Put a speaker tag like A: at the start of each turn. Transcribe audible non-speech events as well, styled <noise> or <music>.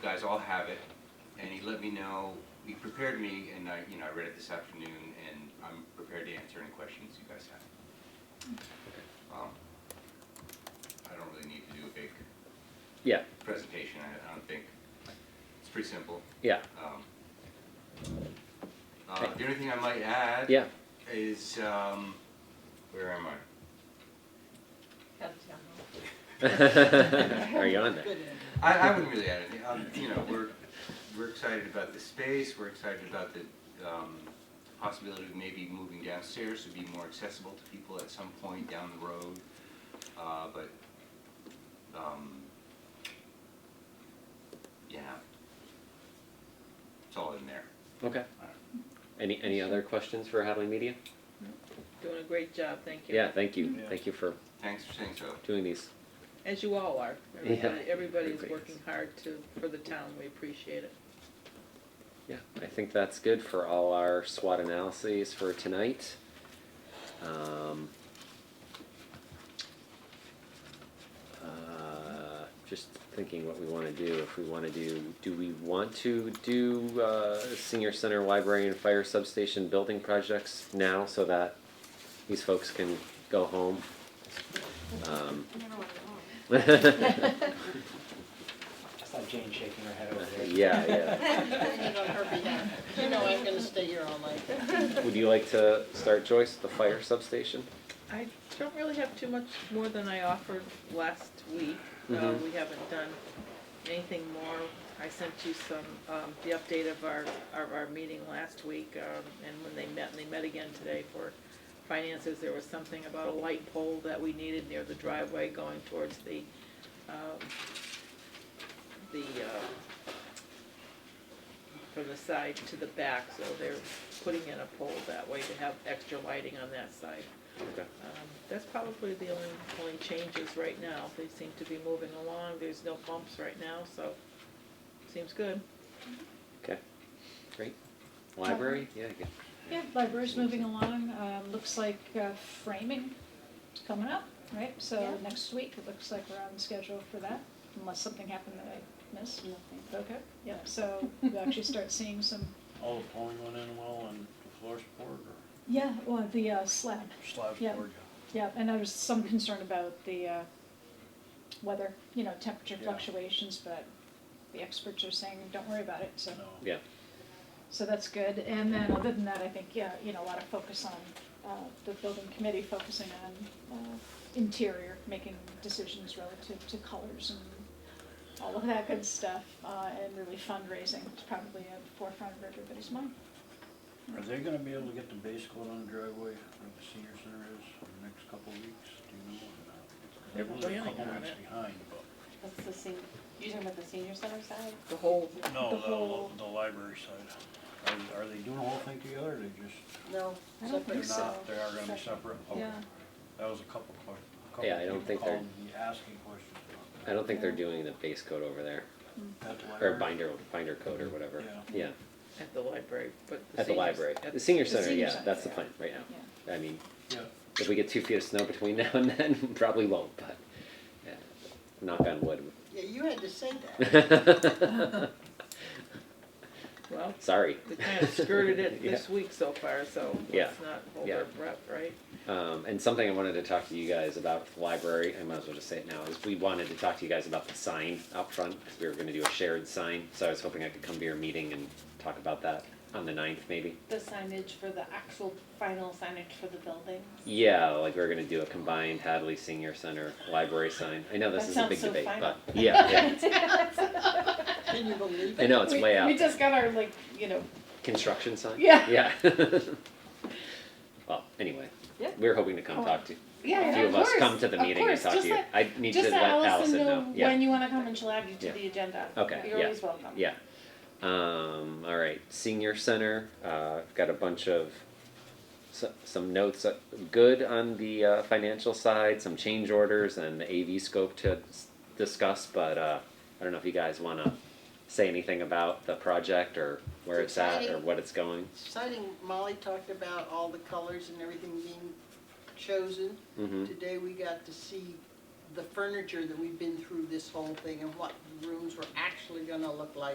A: guys all have it, and he let me know, he prepared me, and I, you know, I read it this afternoon, and I'm prepared to answer any questions you guys have. Um, I don't really need to do a big
B: Yeah,
A: presentation, I, I don't think, it's pretty simple.
B: yeah,
A: Um, Uh, the only thing I might add.
B: yeah.
A: Is, um, where am I?
B: Are you on there?
A: I, I wouldn't really add anything. Um, you know, we're we're excited about the space. We're excited about the um, possibility of maybe moving downstairs to be more accessible to people at some point down the road. Uh, but um, yeah, it's all in there.
B: Okay. Any, any other questions for Hadley Media?
C: Doing a great job, thank you.
B: Yeah, thank you. Thank you for
A: Thanks for saying so.
B: doing these.
C: As you all are.
B: Yeah.
C: Everybody- Everybody's
B: Everybody is.
C: working hard to, for the town, we appreciate it.
B: Yeah, I think that's good for all our SWOT analyses for tonight. Um, uh, just thinking what we want to do. If we want to do, do we want to do uh, senior center, library, and fire substation building projects now so that these folks can go home? <laughs> Um, yeah,
D: I saw Jane shaking her head over there.
B: yeah.
E: You know I'm gonna stay here all night.
B: Would you like to start, Joyce, the fire substation?
C: I don't really have too much more than I offered last week. Uh,
B: Mhm.
C: we haven't done anything more. I sent you some, um, the update of our, of our meeting last week, um, and when they met, and they met again today for finances, there was something about a light pole that we needed near the driveway going towards the, um, the, uh, from the side to the back, so they're putting in a pole that way to have extra lighting on that side.
B: Okay.
C: Um, That's probably the only, only changes right now. They seem to be moving along. There's no bumps right now, so seems good.
B: Okay, great. Library, yeah, good.
F: Yeah, library's moving along, um, looks like uh, framing is coming up, right? So next week, it looks like we're on schedule for that, unless something happened that I missed. Okay, yep, so we actually start seeing some,
G: All the pouring went in well and the floor's poured or
F: yeah, well, the uh, slab,
G: slabs
F: Yeah.
G: poured?
F: yeah, and there was some concern about the uh, weather, you know, temperature
G: Yeah.
F: fluctuations, but the experts are saying, don't worry about it, so.
G: No.
B: Yeah,
F: So that's good, and then other than that, I think, yeah, you know, a lot of focus on, uh, the building committee focusing on, uh, interior, making decisions relative to colors and all of that good stuff, uh, and really fundraising is probably at the forefront of everybody's mind.
G: Are they gonna be able to get the base coat on the driveway like the senior center is in the next couple of weeks? Do you know or not? 'Cause
C: They're
G: I know They're
C: planning
G: a couple
C: on
G: weeks
C: it.
G: behind, but.
H: That's the senior, you talking about the senior center side?
C: The whole,
F: The
G: No,
F: whole-
G: the, the library side. Are, are they doing the whole thing together or they just?
H: No.
F: I don't
G: they're
F: think so.
G: not- They are gonna be separate? Okay.
F: Yeah.
G: That was a couple of questions. couple
B: Yeah, I don't
G: people
B: think they're-
G: called me Asking questions about
B: I don't think they're doing the base coat over there,
G: that. That
B: or
G: library?
B: binder, binder coat or whatever.
G: Yeah.
B: Yeah,
C: at the library, but.
B: at the
C: seniors-
B: library.
C: at
B: The senior
F: The
B: center,
F: senior
B: yeah,
F: center,
B: that's the
C: yeah.
B: plan right now.
F: Yeah,
B: I mean,
G: Yeah.
B: if we get two feet of snow between <laughs> now and then, probably won't, but, yeah, knock on
F: <laughs>
E: Yeah, you had to say
B: <laughs>
E: that.
B: wood.
C: Well,
B: <laughs> Sorry.
C: they kind of
B: <laughs>
C: skirted it
B: Yeah.
C: this week so far, so
B: Yeah.
C: let's not hold
B: Yeah.
C: our breath, right?
B: Um, and something I wanted to talk to you guys about with the library, I might as well just say it now, is we wanted to talk to you guys about the sign out front, because we were gonna do a shared sign, so I was hoping I could come to your meeting and talk about that on the ninth, maybe.
H: The signage for the actual final signage for the building.
B: Yeah, like we're gonna do a combined Hadley Senior Center library sign, I know this
H: That
B: is a big
H: sounds so
B: debate, but,
H: <laughs> final.
B: yeah, yeah,
E: Can you believe
B: I
E: it?
B: know, it's way out.
H: We just got our like, you know,
B: Construction sign?
H: Yeah. <laughs>
B: Yeah. Well, anyway,
H: Yeah.
B: we were hoping to come talk to, a
H: yeah,
B: few
H: of
B: of us
H: course,
B: come to the
H: of
B: meeting and
H: course.
B: talk to
H: Just
B: you,
H: let-
B: I need to
H: Just
B: let
H: let
B: Allison
H: Allison
B: know, yeah.
H: know when you wanna come and she'll add you
B: Yeah.
H: to the agenda.
B: Okay,
H: You're
B: yeah,
H: always welcome.
B: Yeah. Um, all right. Senior center. Uh, I've got a bunch of so, some notes. Uh, good on the uh, financial side. Some change orders and the AV scope to s- discuss. But uh, I don't know if you guys want to say anything about the project or where it's,
E: It's
B: at or
E: exciting.
B: what it's going.
E: Exciting, Molly talked about all the colors and everything being chosen.
B: hmm
E: Today we got to see the furniture that we've been through this whole thing and what rooms were actually gonna look like.